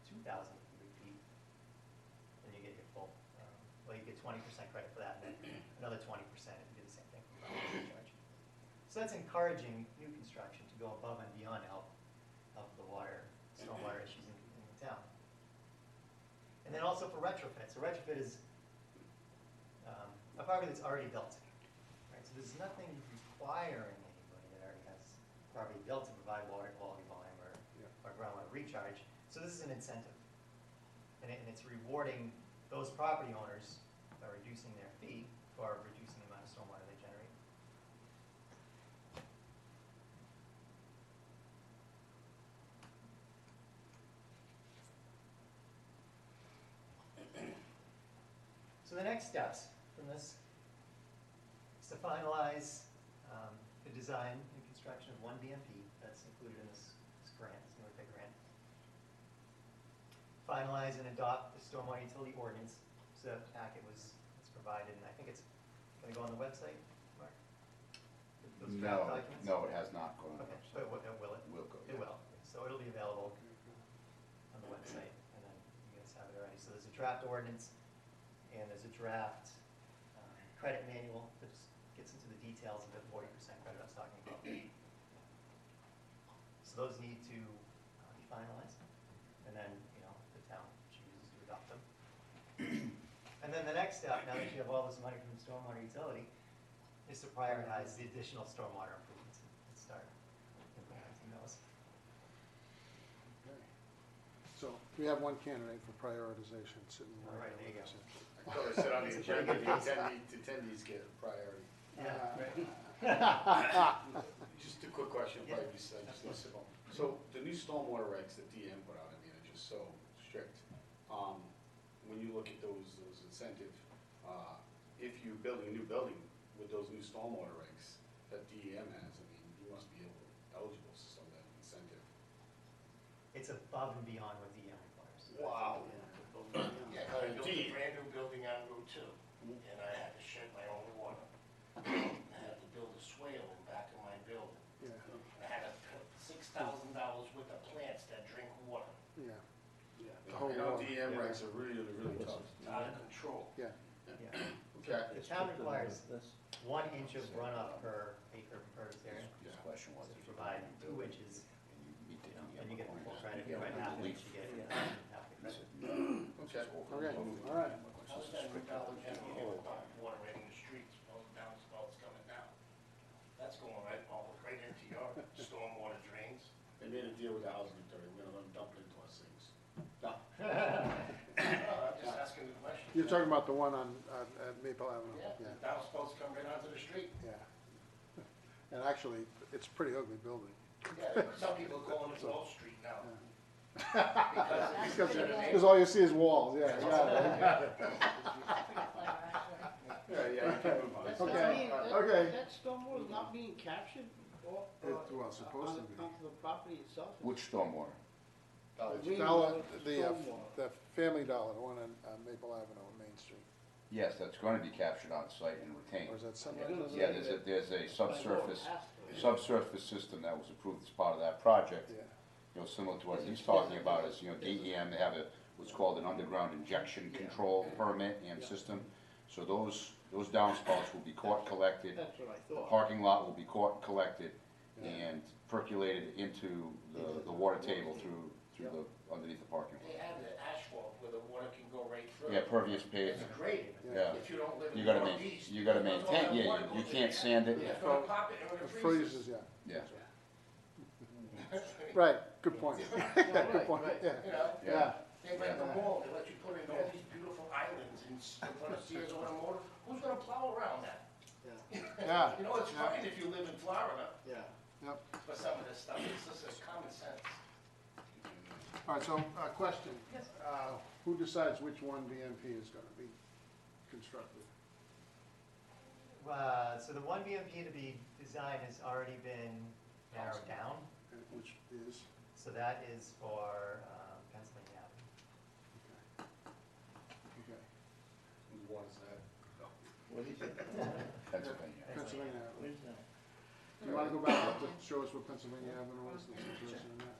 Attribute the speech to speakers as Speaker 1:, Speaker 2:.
Speaker 1: um, another twenty percent if you do the same thing. for property charge. So that's encouraging new construction to go above and beyond to help, help the water, stormwater issues in, in the town. And then also for retrofit, so retrofit is, um, a property that's already built, right? So there's nothing requiring anybody that already has property built to provide water quality volume or, or groundwater recharge. So this is an incentive. And it, and it's rewarding those property owners by reducing their fee for reducing the amount of stormwater they generate. So the next steps from this is to finalize um, the design and construction of one BMP that's included in this this grant, this North Bay grant. Finalize and adopt the stormwater utility ordinance, so that packet was, it's provided, and I think it's gonna go on the website, Mark? Those draft
Speaker 2: No,
Speaker 1: documents?
Speaker 2: no, it has not gone.
Speaker 1: Okay, but it will- it will,
Speaker 2: Will go,
Speaker 1: it
Speaker 2: yeah.
Speaker 1: will, so it'll be available on the website, and then you guys have it already. So there's a draft ordinance, and there's a draft um, credit manual that just gets into the details of the forty percent credit I was talking about. So those need to uh, be finalized, and then, you know, the town chooses to adopt them. And then the next step, now that you have all this money from stormwater utility, is to prioritize the additional stormwater improvements and start implementing those.
Speaker 3: Okay. So we have one candidate for prioritization sitting
Speaker 1: All
Speaker 3: right
Speaker 1: right, there
Speaker 3: there.
Speaker 1: you
Speaker 3: with us.
Speaker 4: I thought I said on the agenda, the attendee- the attendees get priority. Just a quick question,
Speaker 1: Yeah.
Speaker 4: probably just, I just listed them. So the new stormwater regs that DM put out, I mean, are just so strict. Um, when you look at those, those incentive, uh, if you're building a new building with those new stormwater regs that DEM has, I mean, you must be able, eligible for some of that incentive.
Speaker 1: It's above and beyond what DM requires.
Speaker 5: Wow.
Speaker 4: Yeah,
Speaker 5: I built
Speaker 4: gee.
Speaker 5: a brand new building on Route Two, and I had to shed my own water. I had to build a swale in back of my building.
Speaker 3: Yeah,
Speaker 5: I had to put six thousand dollars worth of plants that drink water,
Speaker 3: yeah, The whole
Speaker 4: I
Speaker 3: world.
Speaker 4: know DM regs are really, really tough.
Speaker 5: It's out of control.
Speaker 3: yeah.
Speaker 1: Yeah.
Speaker 4: Okay.
Speaker 1: The town requires
Speaker 6: This
Speaker 1: one inch of runoff per acre of impervious area.
Speaker 4: Yeah.
Speaker 6: question was.
Speaker 1: So if
Speaker 6: if
Speaker 1: you
Speaker 6: you
Speaker 1: provide
Speaker 6: build
Speaker 1: two
Speaker 6: it
Speaker 1: inches,
Speaker 6: and you meet the
Speaker 1: you know,
Speaker 2: E
Speaker 6: DEM
Speaker 1: then you get the full credit. If
Speaker 6: requirements, you
Speaker 1: you write
Speaker 6: have
Speaker 1: half an
Speaker 6: the
Speaker 1: inch,
Speaker 6: lease.
Speaker 1: you get
Speaker 6: Yeah.
Speaker 1: half an
Speaker 6: He
Speaker 1: inch.
Speaker 6: said, no.
Speaker 4: Okay.
Speaker 3: Okay, all right.
Speaker 5: How's that Route Two gonna get water right in the streets, all the downspouts coming down? That's going right, all right into your stormwater drains.
Speaker 4: They made a deal with the housing authority, we're gonna let them dump it into our sinks. No,
Speaker 5: Uh, I'm just asking the question.
Speaker 3: You're talking about the one on, on at Maple Avenue?
Speaker 5: Yeah,
Speaker 3: Yeah,
Speaker 5: the downspouts come right onto the street.
Speaker 3: yeah. And actually, it's a pretty ugly building.
Speaker 5: Yeah, some people call it Wall Street now. Because
Speaker 3: Because,
Speaker 5: it's a
Speaker 3: because all you see is walls, yeah, yeah.
Speaker 4: yeah, yeah, you can move on.
Speaker 7: That's
Speaker 3: Okay,
Speaker 7: not being- that-
Speaker 3: okay.
Speaker 7: That stormwater is not being captured or.
Speaker 3: It
Speaker 7: uh,
Speaker 3: was supposed to
Speaker 7: on-
Speaker 3: be.
Speaker 7: Onto the property itself.
Speaker 2: Which stormwater?
Speaker 4: College.
Speaker 7: We-
Speaker 3: Dollar, the, uh,
Speaker 7: Stormwater.
Speaker 3: the Family Dollar, the one on, on Maple Avenue on Main Street,
Speaker 2: Yes, that's gonna be captured on site and retained.
Speaker 3: or is that somewhere?
Speaker 7: Yeah.
Speaker 3: else?
Speaker 2: Yeah, there's a, there's a subsurface, subsurface system that was approved as part of that project.
Speaker 3: Yeah.
Speaker 2: You know, similar to what he's talking about is, you know, DEM, they have a, what's called an underground injection control permit and system. So those, those downspouts will be caught, collected,
Speaker 7: That's what I
Speaker 2: the
Speaker 7: thought.
Speaker 2: parking lot will be caught, and collected, and percolated into the, the water table through, through the, underneasth the parking
Speaker 5: They
Speaker 2: lot.
Speaker 5: have the asphalt where the water can go right through.
Speaker 2: Yeah, pervious pavement.
Speaker 5: It's graded.
Speaker 2: Yeah.
Speaker 5: If you don't live in
Speaker 2: You
Speaker 5: the
Speaker 2: gotta main,
Speaker 5: northeast.
Speaker 2: you gotta
Speaker 5: all that
Speaker 2: maintain, yeah,
Speaker 5: water
Speaker 2: you- you
Speaker 5: goes in
Speaker 2: can't
Speaker 5: there.
Speaker 2: sand it,
Speaker 5: It's gonna pop it and
Speaker 3: It
Speaker 5: it
Speaker 3: freezes,
Speaker 5: freezes.
Speaker 3: yeah.
Speaker 2: yeah.
Speaker 3: Right, good point. Good
Speaker 7: Right,
Speaker 3: point,
Speaker 7: right.
Speaker 3: yeah.
Speaker 5: You know,
Speaker 2: Yeah.
Speaker 5: they break the wall, they let you put in all these beautiful islands in s- in front of Sears over the motor. Who's gonna plow around that?
Speaker 7: Yeah,
Speaker 3: Yeah.
Speaker 5: You know, it's fine if you live in Florida,
Speaker 7: yeah.
Speaker 3: Yep.
Speaker 5: but some of this stuff, it's just it's common sense.
Speaker 3: All right, so, uh, question. Uh, who decides which one BMP is gonna be constructed?
Speaker 1: Uh, So the one BMP to be designed has already been narrowed down,
Speaker 3: And Which is,
Speaker 1: so that is for um, Pennsylvania Avenue.
Speaker 3: okay,
Speaker 4: What is that?
Speaker 6: What is it?
Speaker 2: Pennsylvania.
Speaker 3: Pennsylvania Avenue.
Speaker 6: Where's that?
Speaker 3: Do you wanna go back up to show us what Pennsylvania Avenue is, the situation in that?